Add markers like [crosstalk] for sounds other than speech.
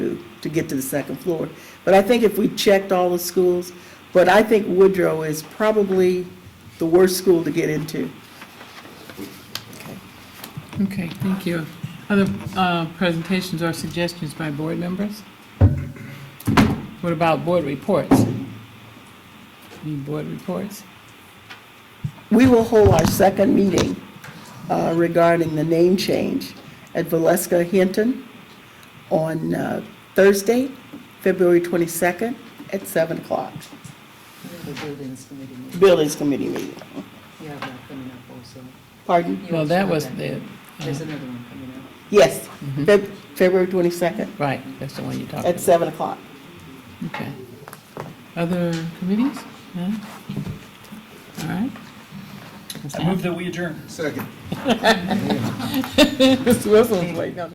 to get to the second floor. But I think if we checked all the schools, but I think Woodrow is probably the worst school to get into. Okay, thank you. Other uh, presentations or suggestions by board members? What about board reports? Any board reports? We will hold our second meeting uh, regarding the name change at Valeska Hinton on uh, Thursday, February 22nd at 7 o'clock. The buildings committee meeting, Buildings Committee meeting. you have that coming up also. Pardon? You Well, also that have was the, There's uh, another one coming up. Yes, Feb- February 22nd right, that's the one you talked at about. 7 o'clock. Okay. Other committees? None? All [laughs] right. I move that we adjourn. Second. Mr. Wilson was waiting on